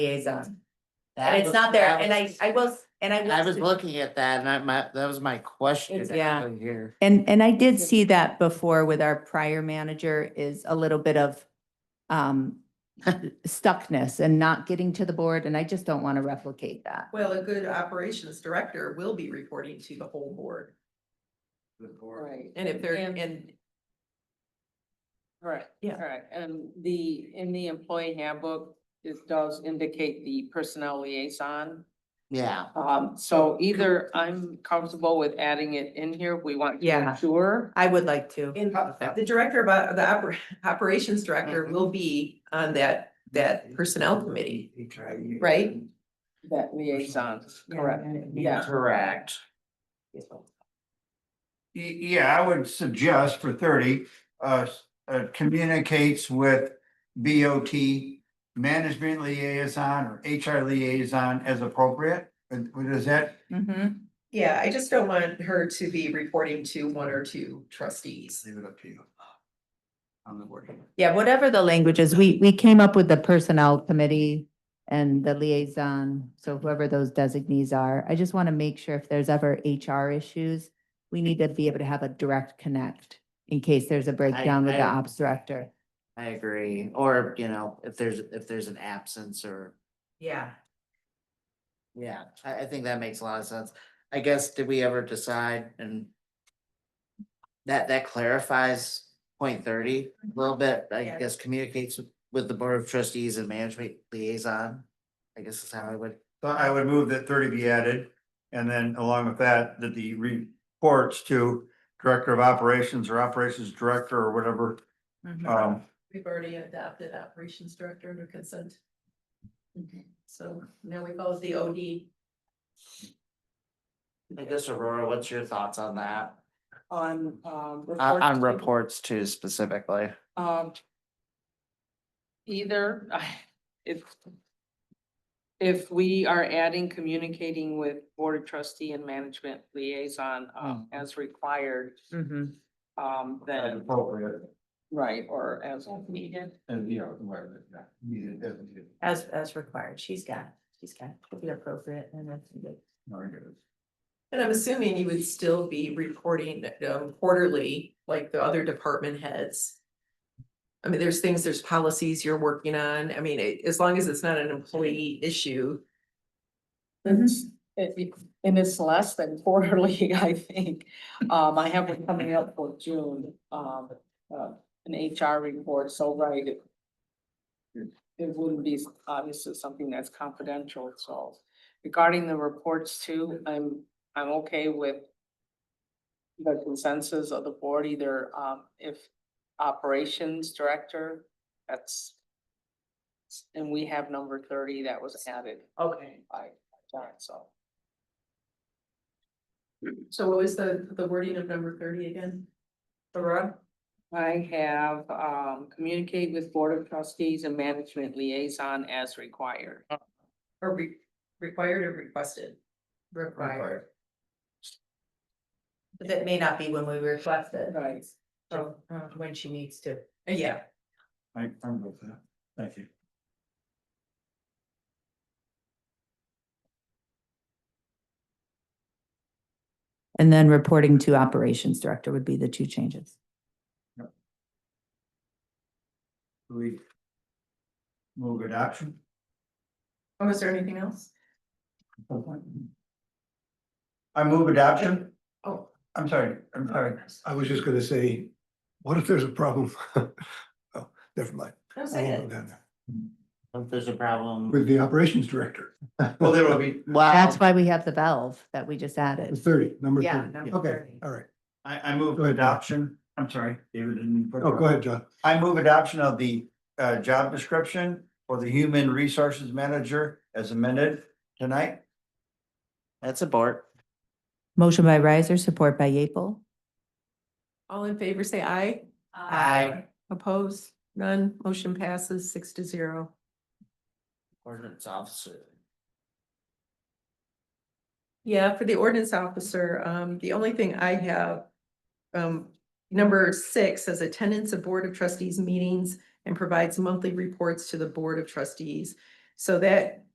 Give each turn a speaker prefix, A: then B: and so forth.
A: liaison.
B: That
A: And it's
B: was-
A: not there,
B: that
A: and I,
B: was-
A: I will, s- and I will.
B: I was
A: s-
B: looking at that and I, my, that was my question.
A: It's- yeah.
B: actually Here.
C: And, and I did see that before with our prior manager is a little bit of um, stuckness and not getting to the board, and I just don't want to replicate that.
D: Well, a good operations director will be reporting to the whole board.
E: Right.
D: And if they're,
E: And-
D: and
E: Correct.
D: Yeah.
E: Correct. And the, in the employee handbook, it does indicate the personnel liaison.
B: Yeah,
E: Um, so either I'm comfortable with adding it in here, we want to
A: Yeah.
E: make sure.
A: I would like to.
D: in- the director, but the oper- operations director will be on that, that personnel committee. Right?
E: That liaison, correct, yeah.
B: correct.
F: Y- Yeah, I would suggest for thirty, uh, s- uh, communicates with BOT management liaison or HR liaison as appropriate. And what is that?
C: Mhm.
D: Yeah, I just don't want her to be reporting to one or two trustees.
F: Leave it up to you. On the board.
C: Yeah, whatever the language is, we, we came up with the personnel committee and the liaison, so whoever those designees are. I just want to make sure if there's ever HR issues, we need to be able to have a direct connect in case there's a breakdown with the
B: I-
C: ops director.
B: I agree. Or, you know, if there's, if there's an absence or,
A: Yeah.
B: yeah, I, I think that makes a lot of sense. I guess, did we ever decide and that, that clarifies point thirty a
A: Mm-hmm.
B: little bit, I
D: Yeah.
B: guess communicates with the board of trustees and management liaison. I guess is how I would,
F: So I would move that thirty be added, and then along with that, that the reports to Director of Operations or Operations Director or whatever,
A: Uh,
F: um,
D: We've already adopted operations director under consent. So now we go with the OD.
B: I guess Aurora, what's your thoughts on that?
E: On, um.
B: On, on
E: reports.
B: reports too specifically.
E: Um. Either, if. If we are adding communicating with board of trustee and management liaison, um,
B: Mhm.
E: as required,
A: Mhm.
E: um,
F: as
E: then,
F: appropriate,
E: right, or as needed.
F: and you know, where, yeah, needed, as needed.
A: As, as required, she's got, she's got to be appropriate and that's good.
F: Very good.
D: And I'm assuming you would still be reporting um, quarterly, like the other department heads. I mean, there's things, there's policies you're working on. I mean, it- as long as it's not an employee issue.
E: It- it- And it's less than quarterly, I think. Um, I have one coming up for June, um, uh, an HR report, so right. It it wouldn't be obviously something that's confidential, so regarding the reports too, I'm, I'm okay with. The consensus of the board, either, um, if operations director, that's. And we have number thirty that was added
D: Okay.
E: by John, so.
D: So what was the, the wording of number thirty again? Aurora?
E: I have, um, communicate with Board of Trustees and Management Liaison as required.
D: Or re- required or requested?
A: Required. But that may not be when we request it,
E: Right.
A: so uh,
D: um,
A: when she needs to.
D: Yeah.
F: I, I'm good with that. Thank you.
C: And then reporting to operations director would be the two changes.
F: Do We move adoption.
D: Oh, is there anything else?
F: I move adoption.
D: Oh.
F: I'm sorry, I'm sorry.
G: I was just gonna say, what if there's a problem? Oh, never mind.
D: No,
G: I
D: say
G: won't go
D: it.
G: down there.
B: If there's a problem.
G: With the operations director,
F: Well, there will be,
B: Wow,
C: That's why we have the valve that we just
G: the
C: added.
G: thirty, number
A: Yeah,
G: thirty.
A: number
G: Okay,
A: 30.
G: all right.
F: I, I move
G: Go ahead.
F: adoption. I'm sorry, David didn't. put it
G: Oh, go
F: up.
G: ahead, John.
F: I move adoption of the uh job description for the human resources manager as amended tonight.
B: that's a board.
C: Motion by Riser, support by Yeaple.
D: All in favor, say aye.
B: Aye.
D: Oppose, none, motion passes six to zero.
B: Ordinance officer.
D: Yeah, for the ordinance officer, um, the only thing I have. Um, number six says attendance of Board of Trustees meetings and provides monthly reports to the Board of Trustees. So that